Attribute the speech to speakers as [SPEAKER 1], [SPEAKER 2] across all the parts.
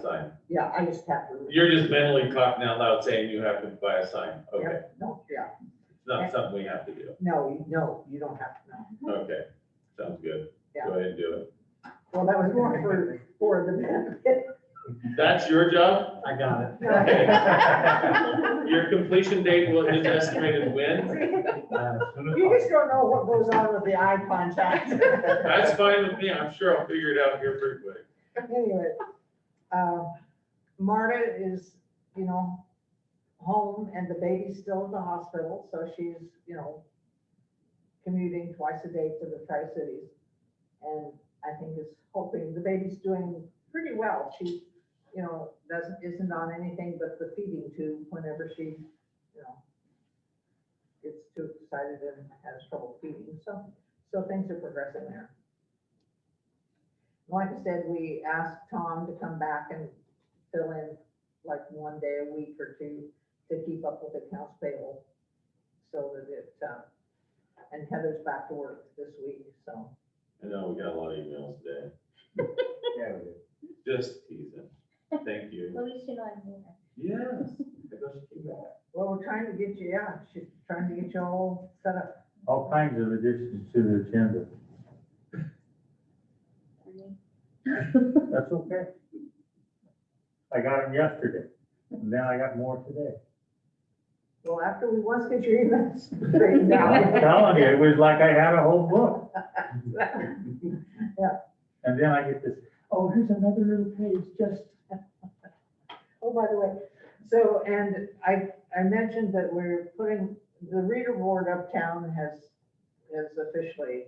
[SPEAKER 1] sign.
[SPEAKER 2] Yeah, I just have to.
[SPEAKER 1] You're just mentally talking out loud saying you have to buy a sign. Okay,
[SPEAKER 2] Yeah, No, yeah,
[SPEAKER 1] it's not something we have to do.
[SPEAKER 2] no, you- no, you don't have to know.
[SPEAKER 1] Okay, sounds good.
[SPEAKER 2] Yeah.
[SPEAKER 1] Go ahead and do it.
[SPEAKER 2] Well, that was more for, for the benefit.
[SPEAKER 1] That's your job?
[SPEAKER 3] I got it.
[SPEAKER 1] Your completion date will, is estimated when?
[SPEAKER 3] Uh, as soon as
[SPEAKER 2] You just don't know what goes on with the eye contact.
[SPEAKER 1] That's fine with me. I'm sure I'll figure it out here pretty quick.
[SPEAKER 2] Anyway, uh, Marta is, you know, home and the baby's still in the hospital, so she's, you know, commuting twice a day to the Tri-Cities. And I think is hoping, the baby's doing pretty well. She, you know, doesn't, isn't on anything but the feeding tube whenever she, you know, gets too excited and has trouble feeding. So, so things are progressing there. Like I said, we asked Tom to come back and fill in like one day a week or two to keep up with accounts payable. So that it, uh, and Heather's back to work this week, so.
[SPEAKER 1] I know we got a lot of emails today.
[SPEAKER 3] Yeah, we do.
[SPEAKER 1] Just teasing. Thank you.
[SPEAKER 4] At least you know I'm here.
[SPEAKER 1] Yes. It doesn't keep that.
[SPEAKER 2] Well, we're trying to get you, yeah, she's trying to get you all set up.
[SPEAKER 3] All kinds of additions to the agenda. That's okay. I got them yesterday, and then I got more today.
[SPEAKER 2] Well, after we once get your emails straightened out.
[SPEAKER 3] I'm telling you, it was like I had a whole book. And then I get this, oh, here's another little page, just.
[SPEAKER 2] Oh, by the way, so, and I, I mentioned that we're putting, the reader board uptown has, has officially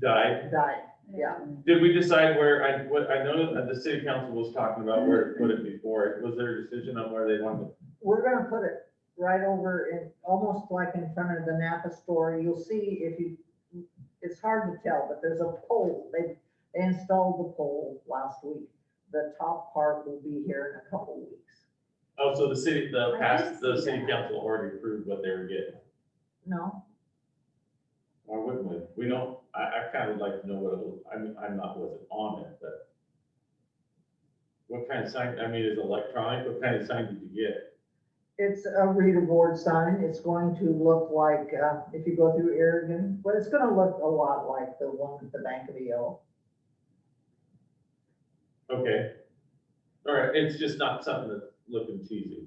[SPEAKER 1] Die.
[SPEAKER 2] died, yeah.
[SPEAKER 1] Did we decide where, I, what, I know that the city council was talking about where to put it before, was there a decision on where they wanted? to-
[SPEAKER 2] We're gonna put it right over in, almost like in front of the Napa store. You'll see if you, it's hard to tell, but there's a pole. They, they installed the pole last week. The top part will be here in a couple weeks.
[SPEAKER 1] Oh, so the city, the
[SPEAKER 4] I
[SPEAKER 1] past,
[SPEAKER 4] didn't
[SPEAKER 1] the
[SPEAKER 4] see
[SPEAKER 1] city
[SPEAKER 4] that.
[SPEAKER 1] council already approved what they were getting.
[SPEAKER 2] No?
[SPEAKER 1] Why wouldn't we? We don't, I, I kind of would like to know what it was, I mean, I'm not, wasn't on it, but. What kind of sign, I mean, is it electronic, what kind of sign did you get?
[SPEAKER 2] It's a reader board sign. It's going to look like, uh, if you go through Aragon, well, it's gonna look a lot like the one at the Bank of the Yellow.
[SPEAKER 1] Okay. All right, it's just not something that's looking cheesy.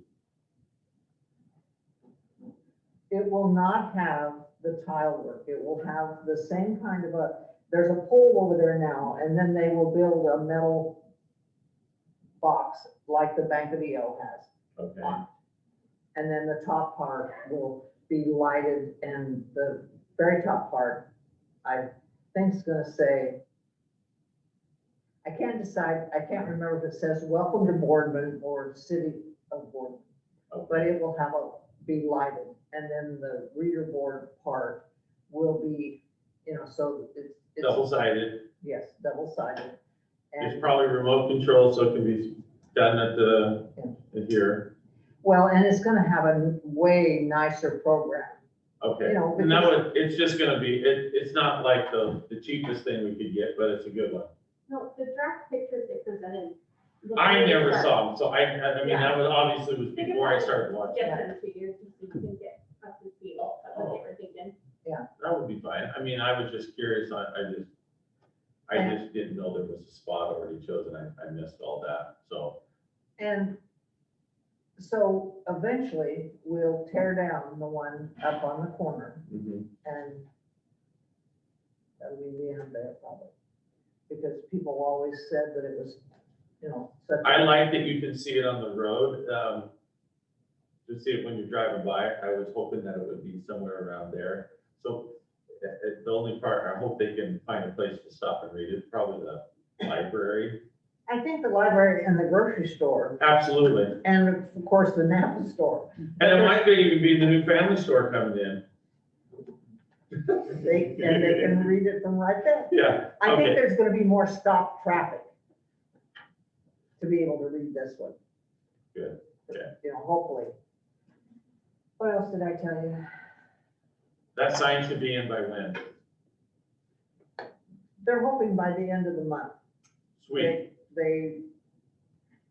[SPEAKER 2] It will not have the tile work. It will have the same kind of a, there's a pole over there now, and then they will build a metal box like the Bank of the O has.
[SPEAKER 1] Okay,
[SPEAKER 2] on it. And then the top part will be lighted and the very top part, I think is gonna say, I can't decide, I can't remember if it says welcome to Boardman or city of Boardman but
[SPEAKER 1] okay,
[SPEAKER 2] it will have a, be lighted, and then the reader board part will be, you know, so it's,
[SPEAKER 1] double
[SPEAKER 2] it's,
[SPEAKER 1] sided.
[SPEAKER 2] yes, double sided.
[SPEAKER 1] It's
[SPEAKER 2] And,
[SPEAKER 1] probably remote control, so it can be done at the, at here.
[SPEAKER 2] well, and it's gonna have a way nicer program.
[SPEAKER 1] Okay.
[SPEAKER 2] You know,
[SPEAKER 1] And that would, it's just gonna be, it, it's not like the, the cheapest thing we could get, but it's a good one.
[SPEAKER 4] No, the draft pictures they presented. look
[SPEAKER 1] I
[SPEAKER 4] really
[SPEAKER 1] never
[SPEAKER 4] sharp.
[SPEAKER 1] saw them, so I, I mean, that was obviously was before I started watching.
[SPEAKER 4] Get them to you, so you can get up to speed on what they were thinking.
[SPEAKER 1] That would be fine. I mean, I was just curious. I, I just, I
[SPEAKER 2] Yeah.
[SPEAKER 1] just didn't know there was a spot already chosen. I, I missed all that, so.
[SPEAKER 2] And so eventually, we'll tear down the one up on the corner, and that'll be the end of that probably. Because people always said that it was, you know, such. a-
[SPEAKER 1] I like that you can see it on the road, um, to see it when you're driving by. I was hoping that it would be somewhere around there. So uh, uh, the only part, I hope they can find a place to stop and read it, probably the library.
[SPEAKER 2] I think the library and the grocery store,
[SPEAKER 1] Absolutely.
[SPEAKER 2] and of course, the Napa store,
[SPEAKER 1] And it might be even be the new family store coming in.
[SPEAKER 2] they, and they can read it from right there.
[SPEAKER 1] Yeah,
[SPEAKER 2] I think
[SPEAKER 1] Okay.
[SPEAKER 2] there's gonna be more stop traffic to be able to read this one.
[SPEAKER 1] Good, yeah.
[SPEAKER 2] You know, hopefully. What else did I tell you?
[SPEAKER 1] that sign should be in by when?
[SPEAKER 2] They're hoping by the end of the month.
[SPEAKER 1] Sweet.
[SPEAKER 2] They, they